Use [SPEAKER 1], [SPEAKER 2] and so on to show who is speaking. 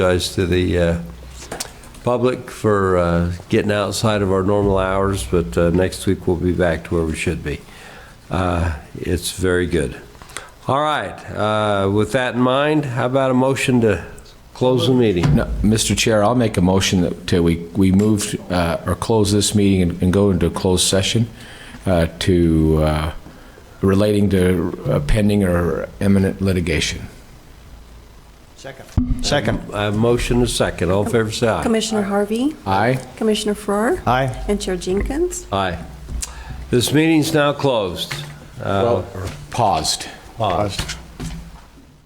[SPEAKER 1] apologize to the uh, public for uh, getting outside of our normal hours, but uh, next week we'll be back to where we should be. Uh, It's very good. All right, uh, with that in mind, how about a motion to close the meeting?
[SPEAKER 2] No, Mr. Chair, I'll make a motion that to- we, we move uh, or close this meeting and- and go into a closed session uh, to, uh, relating to uh, pending or imminent litigation.
[SPEAKER 3] Second.
[SPEAKER 1] I have a motion and a second. All in favor, say aye.
[SPEAKER 4] Commissioner Harvey,
[SPEAKER 2] Aye?
[SPEAKER 4] Commissioner Farrar,
[SPEAKER 3] Aye.
[SPEAKER 4] and Chair Jenkins.
[SPEAKER 1] Aye. This meeting's now closed.
[SPEAKER 2] Well, Paused.
[SPEAKER 1] Paused.